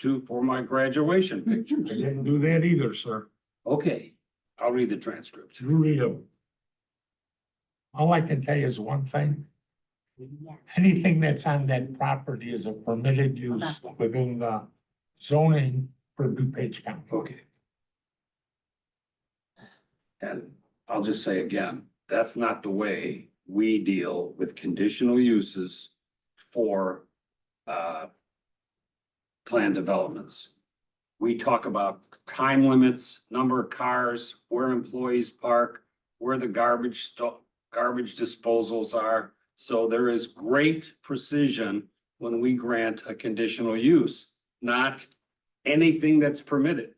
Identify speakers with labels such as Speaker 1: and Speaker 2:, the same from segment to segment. Speaker 1: to for my graduation
Speaker 2: I
Speaker 1: pictures.
Speaker 2: didn't do that either, sir.
Speaker 1: Okay, I'll read the transcript.
Speaker 2: You read 'em. All I can tell you is one thing. Anything that's on that property is a permitted use within the zoning for DuPage County.
Speaker 1: Okay. And I'll just say again, that's not the way we deal with conditional uses for uh planned developments. We talk about time limits, number of cars, where employees park, where the garbage sto- garbage disposals are. So there is great precision when we grant a conditional use, not anything that's permitted.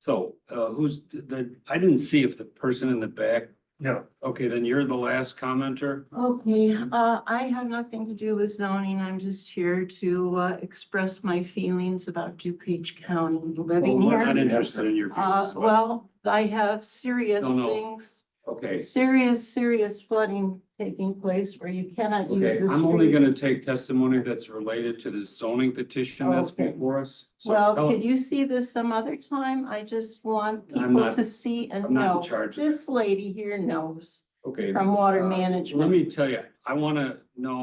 Speaker 1: So, uh, who's the, I didn't see if the person in the back,
Speaker 2: Yeah.
Speaker 1: okay, then you're the last commenter.
Speaker 3: Okay, uh, I have nothing to do with zoning. I'm just here to, uh, express my feelings about DuPage County living
Speaker 1: Well, We're not
Speaker 3: here.
Speaker 1: interested in your
Speaker 3: Uh,
Speaker 1: feelings, but,
Speaker 3: well, I have serious
Speaker 1: No, no.
Speaker 3: things,
Speaker 1: okay,
Speaker 3: serious, serious flooding taking place where you cannot use
Speaker 1: okay,
Speaker 3: this.
Speaker 1: I'm only gonna take testimony that's related to the zoning petition that's
Speaker 3: Okay.
Speaker 1: before us. So
Speaker 3: Well,
Speaker 1: tell-
Speaker 3: could you see this some other time? I just want
Speaker 1: I'm
Speaker 3: people
Speaker 1: not-
Speaker 3: to see and
Speaker 1: I'm not in
Speaker 3: know.
Speaker 1: charge of that.
Speaker 3: This lady here knows
Speaker 1: Okay.
Speaker 3: from water
Speaker 1: uh, Let
Speaker 3: management.
Speaker 1: me tell you, I wanna know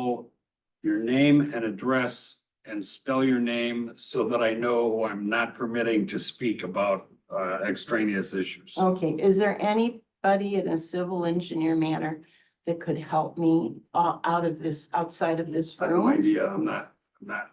Speaker 1: your name and address and spell your name so that I know who I'm not permitting to speak about, uh, extraneous issues.
Speaker 3: Okay, is there anybody in a civil engineer manner that could help me uh, out of this, outside of this
Speaker 1: I have no
Speaker 3: room?
Speaker 1: idea. I'm not, I'm not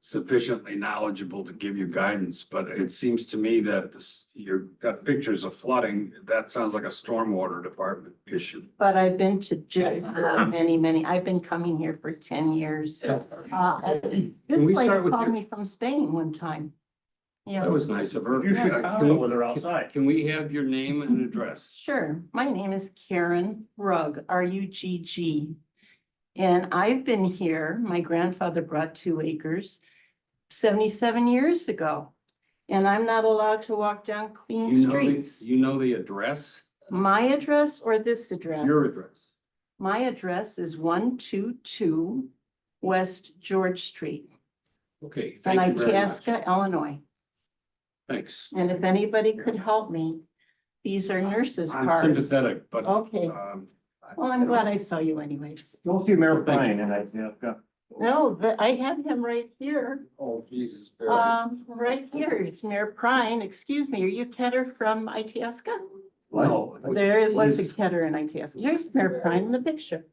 Speaker 1: sufficiently knowledgeable to give you guidance, but it seems to me that this, you've got pictures of flooding. That sounds like a stormwater department issue.
Speaker 3: But I've been to jail for many, many, I've been coming here for ten years. Uh, This
Speaker 1: we
Speaker 3: lady
Speaker 1: start with
Speaker 3: called
Speaker 1: your-
Speaker 3: me from Spain one time.
Speaker 1: That was
Speaker 3: Yes,
Speaker 1: nice of her.
Speaker 4: You should
Speaker 1: Uh,
Speaker 4: follow
Speaker 1: can-
Speaker 4: with her outside.
Speaker 1: Can we have your name and address?
Speaker 3: sure. My name is Karen Rugg, R U G G. And I've been here, my grandfather brought two acres seventy-seven years ago. And I'm not allowed to walk down
Speaker 1: You
Speaker 3: clean
Speaker 1: know the-
Speaker 3: streets.
Speaker 1: You know the address?
Speaker 3: My address or this address?
Speaker 1: Your address.
Speaker 3: My address is one two two West George Street,
Speaker 1: Okay,
Speaker 3: in
Speaker 1: thank you very much.
Speaker 3: Itasca, Illinois.
Speaker 1: Thanks.
Speaker 3: And if anybody could help me, these are nurses'
Speaker 1: I'm
Speaker 3: cards.
Speaker 1: sympathetic, but.
Speaker 3: Okay,
Speaker 1: um, I-
Speaker 3: well, I'm glad I saw you anyways.
Speaker 4: You'll see Mayor
Speaker 1: Thank you.
Speaker 4: Fine and I, yeah, I've got-
Speaker 3: No, but I have him right here.
Speaker 1: Oh, Jesus. Mary.
Speaker 3: Um, right here is Mayor Prine. Excuse me, are you Ketter from Itasca?
Speaker 1: No.
Speaker 3: There was a
Speaker 1: He's-
Speaker 3: Ketter in Itasca. Here's Mayor Prine in the picture.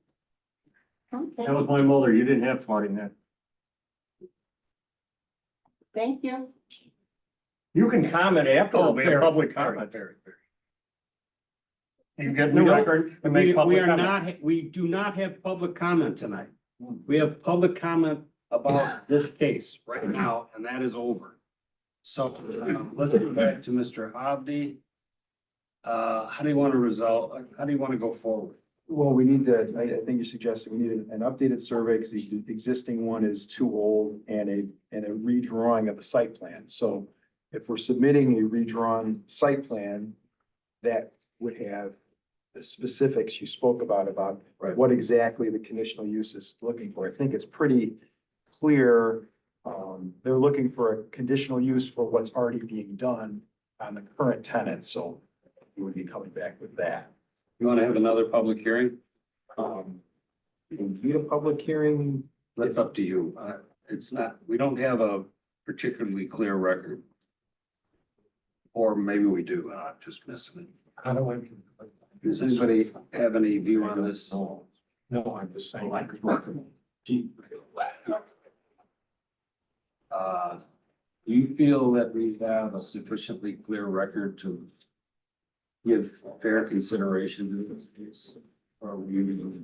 Speaker 3: Okay,
Speaker 4: that was my mother. You didn't have flooding then.
Speaker 3: thank you.
Speaker 4: You can comment after
Speaker 1: Oh,
Speaker 4: we have
Speaker 1: Barry,
Speaker 4: public
Speaker 1: Barry,
Speaker 4: comment.
Speaker 1: Barry, Barry.
Speaker 4: You get
Speaker 1: We
Speaker 4: new
Speaker 1: don't-
Speaker 4: record and
Speaker 1: We,
Speaker 4: make
Speaker 1: we
Speaker 4: public
Speaker 1: are
Speaker 4: comment. Hmm.
Speaker 1: not, we do not have public comment tonight. We have public comment about this case right now, and that is over. So, um, let's go back to Mr. Hobby. Uh, how do you want to resolve, how do you want to go forward?
Speaker 5: Well, we need to, I, I think you're suggesting we need an an updated survey because the the existing one is too old and a, and a redrawing of the site plan. So if we're submitting a redrawn site plan, that would have the specifics you spoke about, about
Speaker 1: Right.
Speaker 5: what exactly the conditional use is looking for. I think it's pretty clear. Um, they're looking for a conditional use for what's already being done on the current tenant, so we would be coming back with that.
Speaker 1: You want to have another public hearing?
Speaker 5: Um, we can do a public hearing.
Speaker 1: That's up to you. Uh, it's not, we don't have a particularly clear record. Or maybe we do, and I'm just missing it.
Speaker 2: How do I?
Speaker 1: Does anybody have any view on this?
Speaker 2: No, no, I'm just
Speaker 4: Oh,
Speaker 2: saying. I could
Speaker 1: deep. Uh, do you feel that we have a sufficiently clear record to give fair consideration to this case? Or we usually-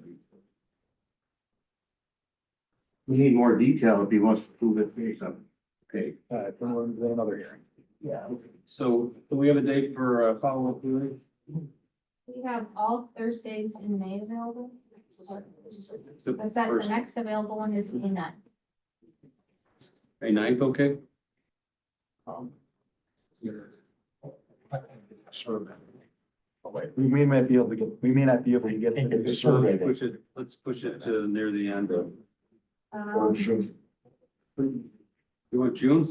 Speaker 4: We need more detail if he wants to prove it based on.
Speaker 1: Okay,
Speaker 5: Uh, then we'll do another hearing.
Speaker 1: yeah, okay. so do we have a date for a follow-up hearing?
Speaker 6: We have all Thursdays in May available.
Speaker 1: The
Speaker 6: Is that the
Speaker 1: first-
Speaker 6: next available one is May ninth?
Speaker 1: May ninth, okay?
Speaker 5: Um, Survey. Oh, wait, We may not be able to get, we may not be able to get
Speaker 2: Can't get
Speaker 5: the
Speaker 2: the
Speaker 5: survey.
Speaker 2: survey.
Speaker 1: Push it,
Speaker 2: Uh,
Speaker 1: let's push it to near the end of.
Speaker 5: Or should-
Speaker 1: You want June